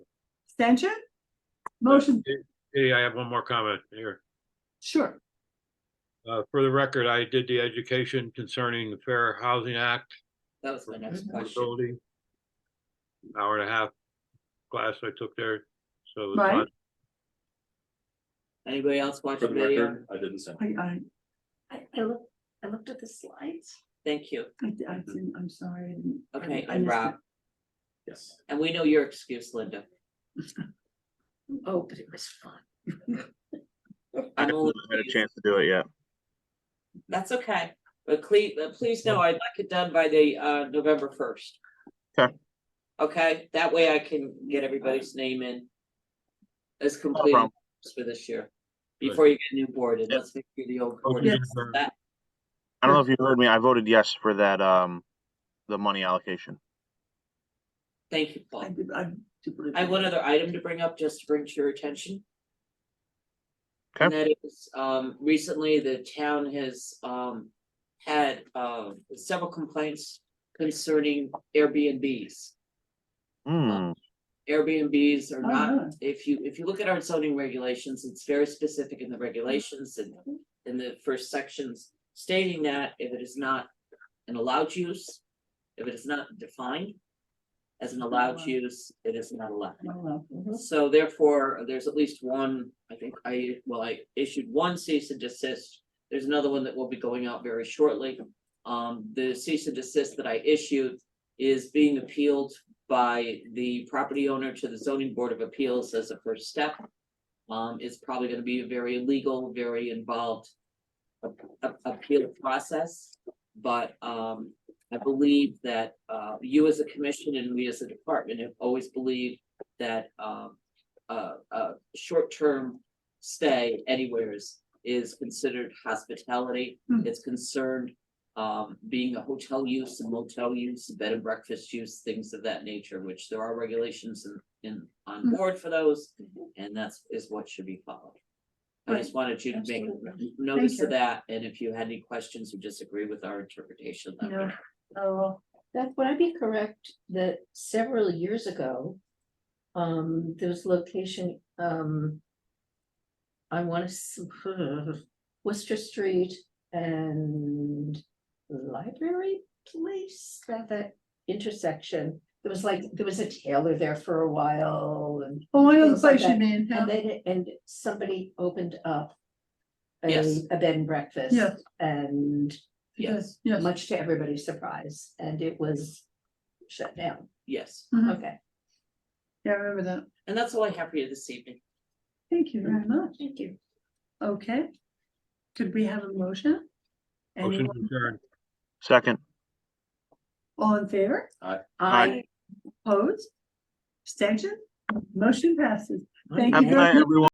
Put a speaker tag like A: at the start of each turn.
A: Extension? Motion,
B: Hey, I have one more comment here.
A: sure.
B: Uh, for the record, I did the education concerning the Fair Housing Act.
C: That was my next question.
B: affordability. Hour and a half class I took there, so. it's
A: Right.
B: not-
C: Anybody else watch
D: For
C: the
D: the
C: video?
D: record, I didn't send.
A: I, I,
E: I, I looked, I looked at the slides.
C: Thank you.
A: I I didn't, I'm sorry. I didn't- I-
C: Okay,
A: I
C: and
A: missed it.
C: Rob,
D: Yes.
C: and we know your excuse, Linda.
E: Oh, but it was fun.
F: I
C: I'm only,
F: haven't had a chance to do it yet.
C: that's okay, but please, please know I'd like it done by the uh November first.
F: Okay.
C: Okay, that way I can get everybody's name in. As complete
F: problem.
C: for this year, before you get new board, and let's make sure the old board
B: Yes.
C: is that,
F: I don't know if you heard me. I voted yes for that, um, the money allocation.
C: thank you,
A: I
C: Paul.
A: did- I do believe
C: I have
A: it.
C: one other item to bring up, just to bring to your attention.
F: Okay.
C: And that is, um, recently the town has, um, had, uh, several complaints concerning Airbnbs.
F: Hmm,
C: Airbnbs are
A: Uh-huh.
C: not, if you, if you look at our zoning regulations, it's very specific in the regulations and in the first sections stating that if it is not an allowed use, if it is not defined as an allowed
A: Allowed.
C: use, it is not allowed.
A: Well, uh, mhm.
C: So therefore, there's at least one, I think I, well, I issued one cease and desist. There's another one that will be going out very shortly. Um, the cease and desist that I issued is being appealed by the property owner to the zoning board of appeals as a first step. Um, it's probably gonna be a very legal, very involved a- a- appeal process. But, um, I believe that, uh, you as a commission and we as a department have always believed that um a a short-term stay anywhere is is considered hospitality.
A: Hmm.
C: It's concerned um being a hotel use and motel use, bed and breakfast use, things of that nature, which there are regulations in in on
A: Hmm. Mm-hmm.
C: board for those. And that's is what should be followed. I just wanted you to make
E: Absolutely.
C: notice
E: you.
C: of that, and if you had any questions or disagree with our interpretation, that
A: No.
C: would
E: Oh, Beth, would I be correct that several years ago, um, there was location, um. I wanna, s- Worcester Street and Library Place, that, that intersection. There was like, there was a tailor there for a while and
A: Oh, I know the
E: Things like
A: place you
E: that.
A: mean. yeah.
E: And they, and somebody opened up. a-
C: Yes.
E: A bed and breakfast.
A: Yes.
E: And
C: yes,
A: Yes,
E: much to everybody's surprise, and it was shut down,
C: yes.
A: Mhm.
E: okay.
A: yeah, I remember that.
C: And that's all I have for you this evening.
A: Thank you very much.
E: Thank you.
A: Okay. Could we have a motion?
B: Motion
A: Anyone
B: to adjourn.
F: second.
A: all in favor?
F: Aye.
A: Opposed? Abstention? Motion passes. Thank you
F: Have a
A: very
F: good night,
A: much.
F: everyone.